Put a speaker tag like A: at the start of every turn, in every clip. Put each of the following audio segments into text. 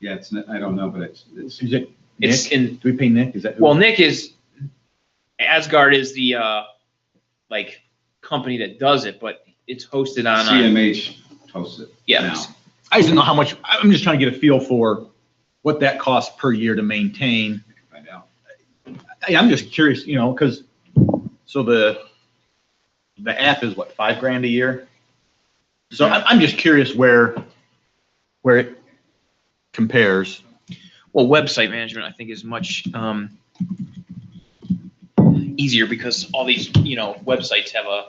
A: Yeah, it's, not- I don't know, but it's, it's,
B: Is it
C: It's
B: Nick?
C: in,
B: Do we pay Nick? Is that? who-
C: well, Nick is, Asgard is the, uh, like, company that does it, but it's hosted on, uh,
A: CMH hosts it.
C: yeah.
A: now.
B: I just don't know how much, I'm just trying to get a feel for what that costs per year to maintain.
A: Find out.
B: I, I'm just curious, you know, because, so the, the app is what, five grand a year? So I'm, I'm just curious where, where it compares.
C: Well, website management, I think, is much, um, easier because all these, you know, websites have a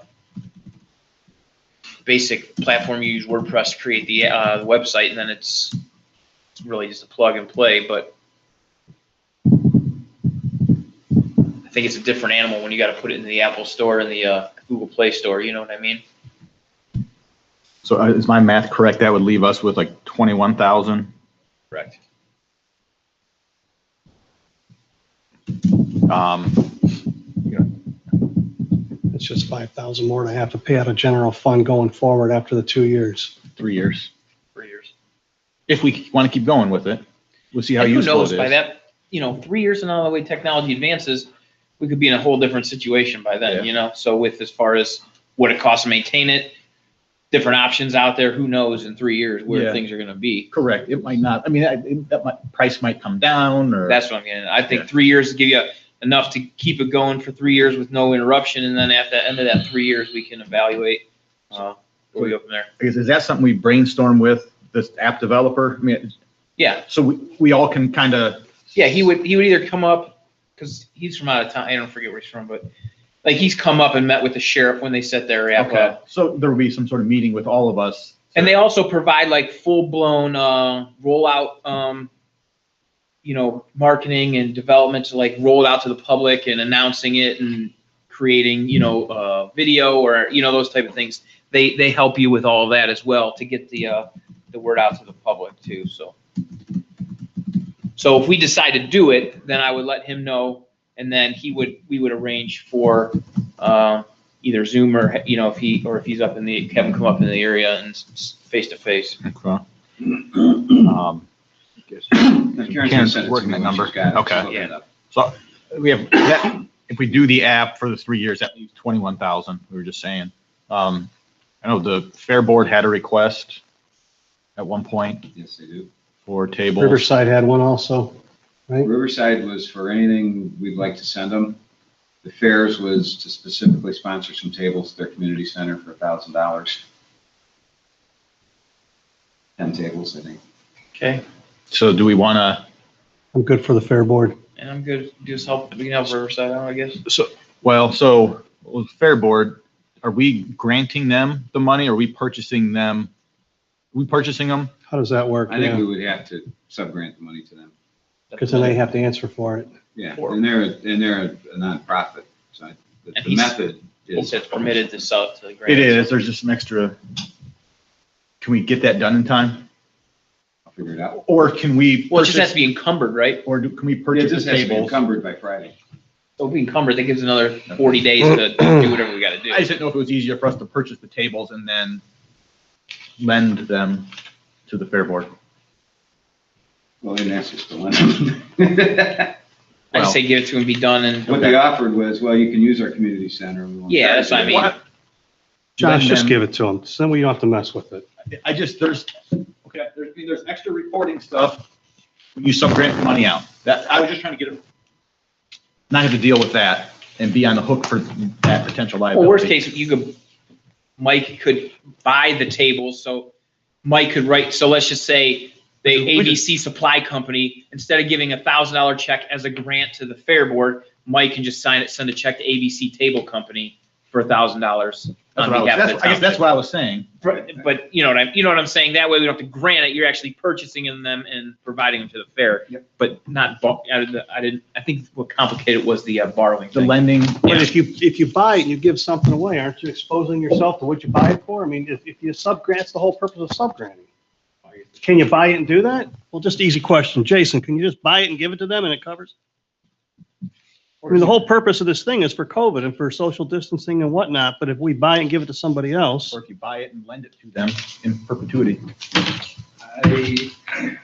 C: basic platform. You use WordPress, to create the, uh, website, and then it's, it's really just a plug and play, but I think it's a different animal when you gotta put it in the Apple Store and the, uh, Google Play Store, you know what I mean?
B: So uh, is my math correct? That would leave us with like twenty-one thousand.
C: Correct.
B: Um,
D: It's just five thousand more and I have to pay out of general fund going forward after the two years.
B: three years.
C: For years.
B: If we want to keep going with it, we'll see how
C: And who
B: useful
C: knows,
B: it
C: by
B: is.
C: that, you know, three years from now, the way technology advances, we could be in a whole different situation by
B: Yeah.
C: then, you know? So with as far as what it costs to maintain it, different options out there, who knows in three years
B: Yeah.
C: where things are gonna be.
B: Correct. It might not, I mean, I- it- that might, price might come down or.
C: That's what I'm getting. at. I
B: Yeah.
C: think three years give you enough to keep it going for three years with no interruption, and then at the end of that three years, we can evaluate, uh, where we go from there.
B: Is, is that something we brainstorm with this app developer? I mean,
C: Yeah,
B: so we, we all can kind of,
C: yeah, he would, he would either come up, cause he's from out of town, I don't forget where he's from, but like he's come up and met with the sheriff when they set their app up.
B: okay, so there will be some sort of meeting with all of us.
C: And they also provide like full blown uh, rollout, um, you know, marketing and development to like roll it out to the public and announcing it and creating, you know, uh, video or you know those type of things. They they help you with all that as well to get the uh, the word out to the public too. So so if we decide to do it, then I would let him know, and then he would we would arrange for. Um, either Zoom or, you know, if he, or if he's up in the, have him come up in the area and s- s- face to face.
B: Okay. Um,
A: Now, Karen's gonna
B: Karen's
A: send it to
B: working
A: me
B: that
A: when
B: number.
A: she's got it. She's
B: Okay.
A: looking it up.
B: So we have, that- if we do the app for the three years, that leaves twenty-one thousand, we were just saying. Um, I know the Fair Board had a request at one point
A: Yes, they do.
B: for tables.
D: Riverside had one also.
A: Riverside was for anything we'd like to send them. The fairs was to specifically sponsor some tables at their community center for a thousand dollars. Ten tables, I think.
C: Okay.
B: So do we want to?
D: I'm good for the fair board.
C: And I'm good. Just help, we can help Riverside out, I guess.
B: Well, so with Fair Board, are we granting them the money? Are we purchasing them? We purchasing them?
D: How does that work?
A: I think we would have to subgrant the money to them.
D: Because then they have to answer for it.
A: Yeah,
C: Or-
A: and they're, and they're a nonprofit, so I- the
C: And
A: the
C: he's-
A: method
C: He
A: is.
C: said it's permitted to sell it to the grant.
B: It is, there's just some extra. Can we get that done in time?
A: I'll figure it out.
B: Or can we
C: Well, it just has
B: purchase,
C: to be encumbered, right?
B: or do- can we
A: Yeah,
B: purchase
A: this
B: the
A: has to be
B: tables?
A: encumbered by Friday.
C: So if we encumber, that gives another forty days to do whatever we gotta do.
B: I just didn't know if it was easier for us to purchase the tables and then lend them to the Fair Board.
A: Well, they didn't ask us to lend them.
C: I'd say give it to him, be done and,
A: What they offered was, well, you can use our community center. we won't
C: Yeah, that's
A: charge
C: what I mean.
A: you.
D: Josh, just
B: them-
D: give it to them. So then we don't have to mess with it.
B: I just, there's, okay, there's, there's extra reporting stuff. when You subgrant money out. That, I was just trying to get it. Not have to deal with that and be on the hook for that potential
C: well,
B: liability.
C: worst case, you could, Mike could buy the tables, so Mike could write, so let's just say the
B: We could-
C: ABC Supply Company, instead of giving a thousand dollar check as a grant to the Fair Board, Mike can just sign it, send a check to ABC Table Company for a thousand dollars
B: That's
C: on
B: what I was-
C: behalf of
B: that's-
C: the
B: I guess that's
C: town.
B: what I was saying.
C: But- But, you know what I'm, you know what I'm saying? That way we don't have to grant it, you're actually purchasing them and providing them to the fair.
A: Yep.
C: But not, bo- I didn't- I didn't, I think what complicated was the uh, borrowing
B: The
C: thing.
B: lending,
D: But if you, if you buy it, you give something away. Aren't you exposing yourself to what you buy it for? I mean, if, if you subgrant's the whole purpose of subgranting. Can you buy it and do that? Well, just easy question. Jason, can you just buy it and give it to them and it covers? I mean, the whole purpose of this thing is for COVID and for social distancing and whatnot, but if we buy it and give it to somebody else.
B: or if you buy it and lend it to them in perpetuity.
A: I